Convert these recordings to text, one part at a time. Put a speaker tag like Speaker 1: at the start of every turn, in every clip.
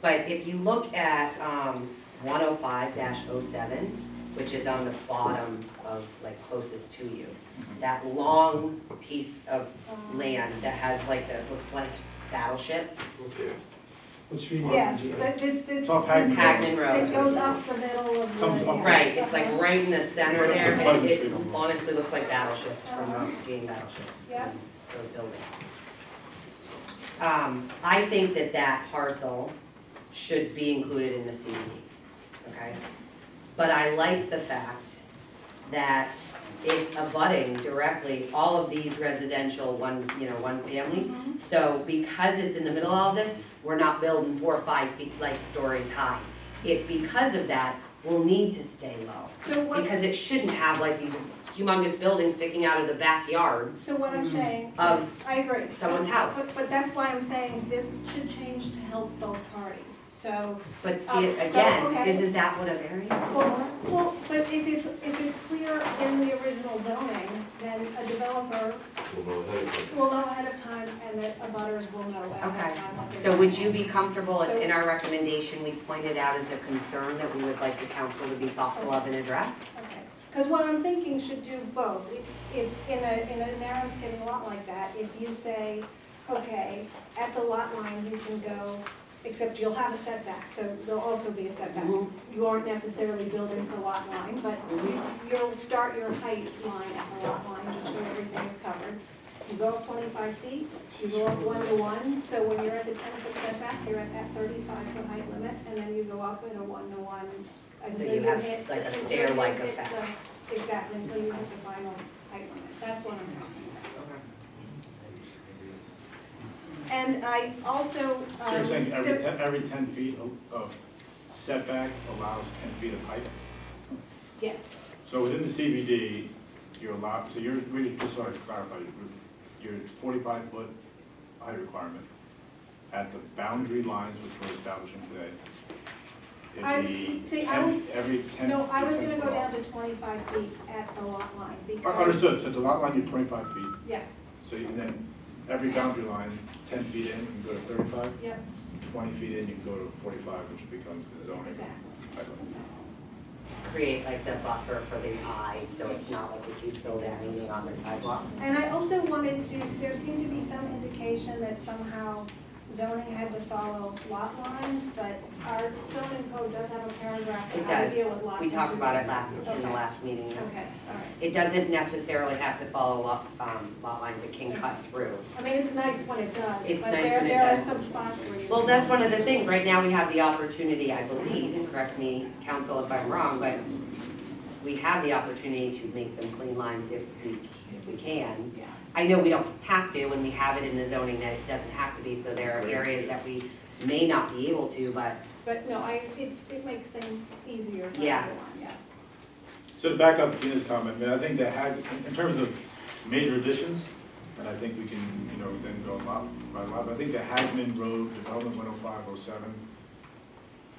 Speaker 1: But if you look at um, 105-07, which is on the bottom of, like, closest to you, that long piece of land that has like, that looks like battleship,
Speaker 2: What street?
Speaker 3: Yes, that, it's, it's.
Speaker 4: It's off Hagman
Speaker 1: Hagman Road.
Speaker 3: It goes up the middle of the.
Speaker 4: Comes up.
Speaker 1: Right, it's like right in the center there,
Speaker 4: Yeah,
Speaker 1: and
Speaker 4: it's a
Speaker 1: it
Speaker 4: bunch.
Speaker 1: honestly looks like battleships from um, game battleship.
Speaker 3: Yeah.
Speaker 1: Those buildings. Um, I think that that parcel should be included in the CBD, okay? But I like the fact that it's abutting directly all of these residential one, you know, one families.
Speaker 3: Mhm.
Speaker 1: So because it's in the middle of all this, we're not building four or five feet, like stories high. It, because of that, will need to stay low,
Speaker 3: So
Speaker 1: because
Speaker 3: what,
Speaker 1: it shouldn't have like these humongous buildings sticking out of the backyards
Speaker 3: so what I'm saying, I
Speaker 1: Mm-hmm. of,
Speaker 3: agree.
Speaker 1: someone's house.
Speaker 3: But, but that's why I'm saying this should change to help both parties, so.
Speaker 1: but
Speaker 3: Um,
Speaker 1: see,
Speaker 3: so,
Speaker 1: again,
Speaker 3: okay.
Speaker 1: isn't that what a variance is for?
Speaker 3: Well, well, but if it's, if it's clear in the original zoning, then a developer will know ahead of time and the abutters will know ahead
Speaker 1: Okay.
Speaker 3: of time. what they're
Speaker 1: So
Speaker 3: gonna
Speaker 1: would you
Speaker 3: want.
Speaker 1: be comfortable if
Speaker 3: So-
Speaker 1: in our recommendation, we pointed out as a concern that we would like the council to be thoughtful of and address?
Speaker 3: Okay, because what I'm thinking should do both. If- If, in a, in a narrow skinny lot like that, if you say, okay, at the lot line, you can go, except you'll have a setback, so there'll also be a setback.
Speaker 1: Mhm.
Speaker 3: You aren't necessarily building to the lot line, but you-
Speaker 1: Mm-hmm.
Speaker 3: you'll start your height line at the lot line, just so everything's covered. You go up twenty-five feet, you go up one to one, so when you're at the ten foot setback, you're at that thirty-five foot height limit, and then you go up in a one to one.
Speaker 1: So
Speaker 3: until
Speaker 1: you have
Speaker 3: hit-
Speaker 1: s- like a
Speaker 3: until you
Speaker 1: stair-like
Speaker 3: hit the-
Speaker 1: effect.
Speaker 3: Exactly, until you hit the final height limit, that's what I'm talking about. And I also, um.
Speaker 4: So you're saying every
Speaker 3: there-
Speaker 4: ten, every ten feet of- of setback allows ten feet of height?
Speaker 3: Yes,
Speaker 4: So within the CBD, you're allowed, so you're, we just sort of clarified, your forty-five foot height requirement at the boundary lines which we're establishing today. It'd
Speaker 3: I'm
Speaker 4: be
Speaker 3: s- see, I
Speaker 4: 10 Every ten.
Speaker 3: no, I was
Speaker 4: 10
Speaker 3: gonna
Speaker 4: foot
Speaker 3: go down
Speaker 4: off.
Speaker 3: to twenty-five feet at the lot line,
Speaker 4: Uh,
Speaker 3: because.
Speaker 4: Understood, so the lot line, you're twenty-five feet,
Speaker 3: Yeah,
Speaker 4: so you can then, every boundary line, ten feet in, you can go to thirty-five,
Speaker 3: yep,
Speaker 4: twenty feet in, you can go to forty-five, which becomes the zoning.
Speaker 3: exactly.
Speaker 4: bylaw.
Speaker 1: Create like the buffer for the eye, so it's not like a huge building leaning on the sidewalk.
Speaker 3: And I also wanted to, there seemed to be some indication that somehow zoning had to follow lot lines, but our zoning code does have a paragraph
Speaker 1: It
Speaker 3: on how to
Speaker 1: does.
Speaker 3: deal with lots.
Speaker 1: We
Speaker 3: and
Speaker 1: talked about it
Speaker 3: twos.
Speaker 1: last, in the
Speaker 3: Okay.
Speaker 1: last meeting.
Speaker 3: Okay, all right.
Speaker 1: It doesn't necessarily have to follow lot, um, lot lines, it can cut through.
Speaker 3: I mean, it's nice when it does,
Speaker 1: It's
Speaker 3: but
Speaker 1: nice
Speaker 3: there,
Speaker 1: when it
Speaker 3: there are
Speaker 1: does.
Speaker 3: some spots where you.
Speaker 1: Well, that's one of the things, right now we have the opportunity, I believe, and correct me, council, if I'm wrong, but we have the opportunity to make them clean lines if we, if we can.
Speaker 3: Yeah.
Speaker 1: I know we don't have to, and we have it in the zoning that it doesn't have to be, so there are areas that we may not be able to, but
Speaker 3: But no, I, it's, it makes things easier for everyone,
Speaker 1: Yeah.
Speaker 3: yeah.
Speaker 4: So to back up Gina's comment, I mean, I think that had, in- in terms of major additions, and I think we can, you know, then go lot by lot, but I think the Hagman Road Development one oh five oh seven,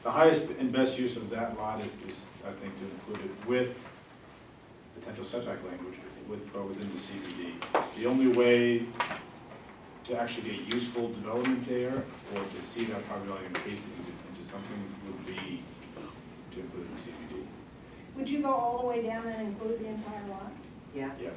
Speaker 4: the highest and best use of that lot is, is, I think, to include it with potential setback language, with, but within the CBD. The only way to actually get useful development there, or to see that property line increased into, into something would be to include it in
Speaker 3: Would you go all the way down and include the entire lot?
Speaker 1: yeah,
Speaker 4: CBD, yes.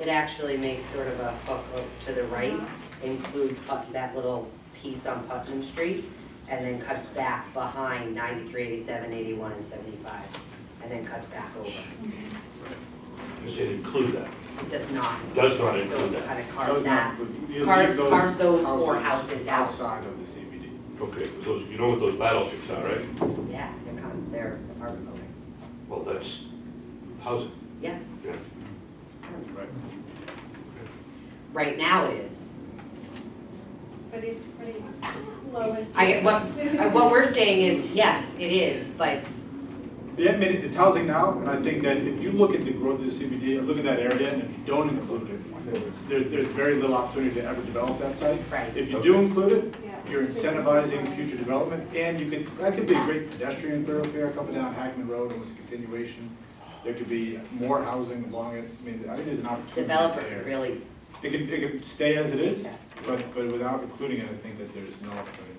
Speaker 1: it actually makes sort of a hook up to the right, includes Put- that little piece on Putnam Street, and then cuts back behind 93, 87, 81, and seventy-five, and then cuts back over.
Speaker 5: You said include that.
Speaker 1: It does not.
Speaker 5: Does not
Speaker 1: So
Speaker 5: include
Speaker 1: it
Speaker 5: that.
Speaker 1: kind of
Speaker 4: Those
Speaker 1: carves that.
Speaker 4: not- you
Speaker 1: carve-
Speaker 4: leave those
Speaker 1: carve those four houses out.
Speaker 4: Outside of the CBD.
Speaker 5: Okay, 'cause those, you know what those battleships are, right?
Speaker 1: Yeah, they're kind of, they're apartment buildings.
Speaker 5: Well, that's housing.
Speaker 1: Yeah,
Speaker 5: Yeah.
Speaker 4: Right.
Speaker 1: right now it is.
Speaker 3: But it's pretty lowest.
Speaker 1: I,
Speaker 3: use.
Speaker 1: what, uh, what we're saying is, yes, it is, but
Speaker 4: Yeah, I mean, it's housing now, and I think that if you look at the growth of the CBD, look at that area, and if you don't include it, there, there's very little opportunity to ever develop that site.
Speaker 1: Right.
Speaker 4: If you do
Speaker 5: Okay.
Speaker 4: include it,
Speaker 3: Yeah.
Speaker 4: you're incentivizing future development, and you could, that could be a great pedestrian thoroughfare coming down Hackman Road, and it's a continuation. There could be more housing along it, I mean, I think there's an opportunity there.
Speaker 1: developer really
Speaker 4: It could, it could stay as it is,
Speaker 1: Yeah.
Speaker 4: but, but without including it, I think that there's no opportunity